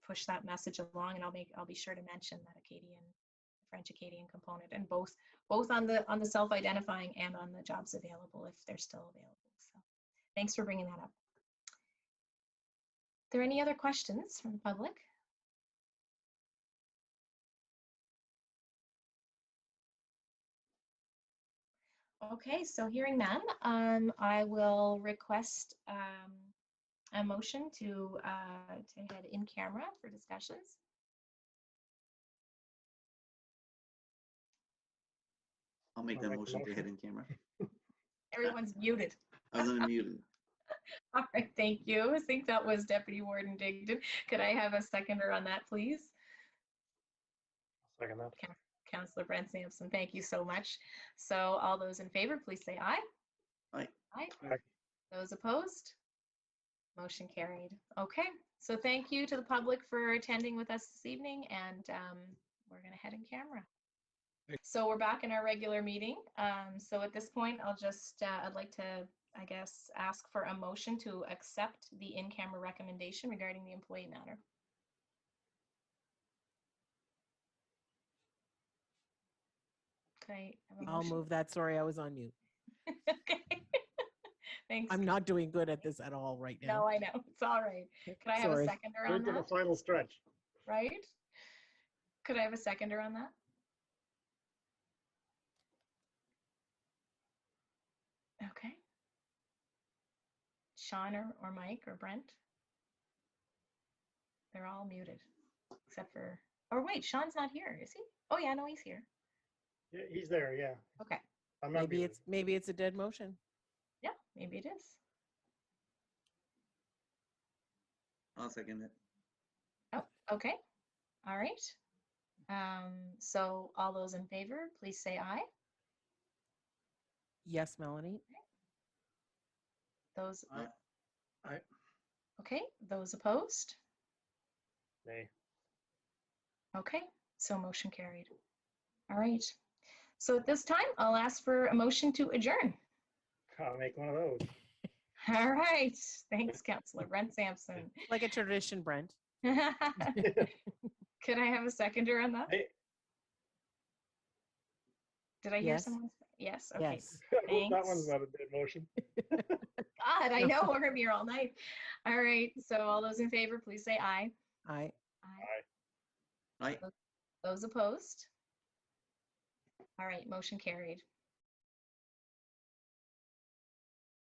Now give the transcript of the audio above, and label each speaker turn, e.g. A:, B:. A: push that message along and I'll make, I'll be sure to mention that Acadian, French Acadian component and both, both on the, on the self-identifying and on the jobs available if they're still available. So thanks for bringing that up. There any other questions from the public? Okay, so hearing none, um, I will request, um, a motion to, uh, to head in camera for discussions.
B: I'll make
C: I'll
B: that
C: make the
B: motion to
C: motion.
B: head in camera.
A: Everyone's muted.
B: I was unmuted.
A: All right, thank you. I think that was Deputy Warden Digdon. Could I have a seconder on that, please?
C: Second that.
A: Councillor Brent Sampson, thank you so much. So all those in favor, please say aye.
B: Aye.
A: Aye.
C: Aye.
A: Those opposed? Motion carried. Okay, so thank you to the public for attending with us this evening and um, we're gonna head in camera. So we're back in our regular meeting. Um, So at this point, I'll just, uh, I'd like to, I guess, ask for a motion to accept the in-camera recommendation regarding the employee matter. Okay.
D: I'll move that. Sorry, I was on mute.
A: Okay. Thanks.
D: I'm not doing good at this at all right
A: No,
D: now.
A: I know. It's all right. Could I have a
D: Sorry.
A: seconder
C: We're
A: on
C: to the
A: that,
C: final stretch.
A: right? Could I have a seconder on that? Okay. Sean or, or Mike or Brent? They're all muted, except for, or wait, Sean's not here, is he? Oh yeah, no, he's here.
C: Yeah, he's there, yeah.
A: Okay,
C: I'm not
D: Maybe
C: muted.
D: it's, maybe it's a dead motion.
A: yeah, maybe it is.
B: I'll second it.
A: Oh, okay, all right. Um, so all those in favor, please say aye.
D: Yes, Melanie?
A: Those.
B: Aye.
C: Aye.
A: Okay, those opposed?
C: Nay.
A: Okay, so motion carried. All right. So at this time, I'll ask for a motion to adjourn.
C: I'll make one of those.
A: All right, thanks, Counselor Brent Sampson.
D: Like a tradition, Brent.
A: Could I have a seconder on that?
C: Hey.
A: Did I hear
D: Yes.
A: someone? say- Yes, okay.
D: Yes.
C: I hope That
A: Thanks.
C: one's not a dead motion.
A: God, I know, we're gonna be here all night. All right, so all those in favor, please say aye.
D: I,
A: Aye.
B: Right,
A: Those opposed? All right, motion carried.